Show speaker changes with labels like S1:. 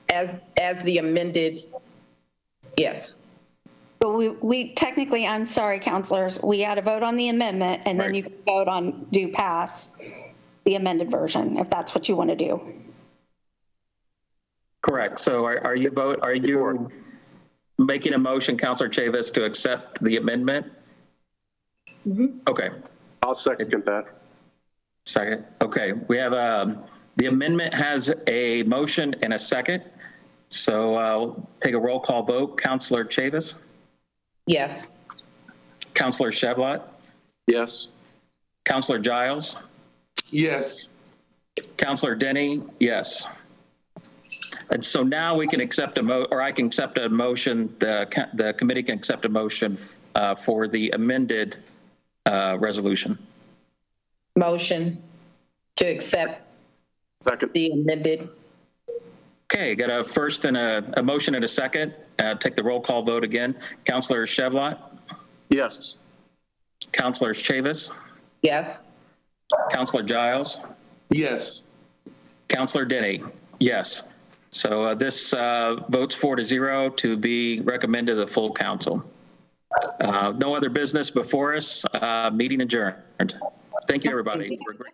S1: as, as the amended, yes.
S2: But we, we technically, I'm sorry, counselors, we had a vote on the amendment and then
S3: Right.
S2: you can vote on do pass the amended version, if that's what you want to do.
S3: Correct. So are, are you vote, are you making a motion, Counselor Chavis, to accept the amendment? Okay,
S4: I'll second that.
S3: second. Okay, we have, um, the amendment has a motion and a second. So I'll take a roll call vote. Counselor Chavis,
S1: Yes.
S3: Counselor Shavat,
S4: Yes.
S3: Counselor Giles,
S5: yes.
S3: Counselor Denny, yes. And so now we can accept a mo, or I can accept a motion, the, ca- the committee can accept a motion uh, for the amended uh, resolution.
S1: Motion to accept
S4: Second.
S1: the amended,
S3: Okay, got a first and a, a motion and a second. Uh, Take the roll call vote again. Counselor Shavat,
S4: Yes.
S3: Counselor Chavis,
S1: yes.
S3: Counselor Giles,
S5: Yes.
S3: Counselor Denny, yes. So uh, this uh, votes four to zero to be recommended to the full council. Uh, No other business before us, Uh, meeting adjourned. Thank you, everybody. for a great-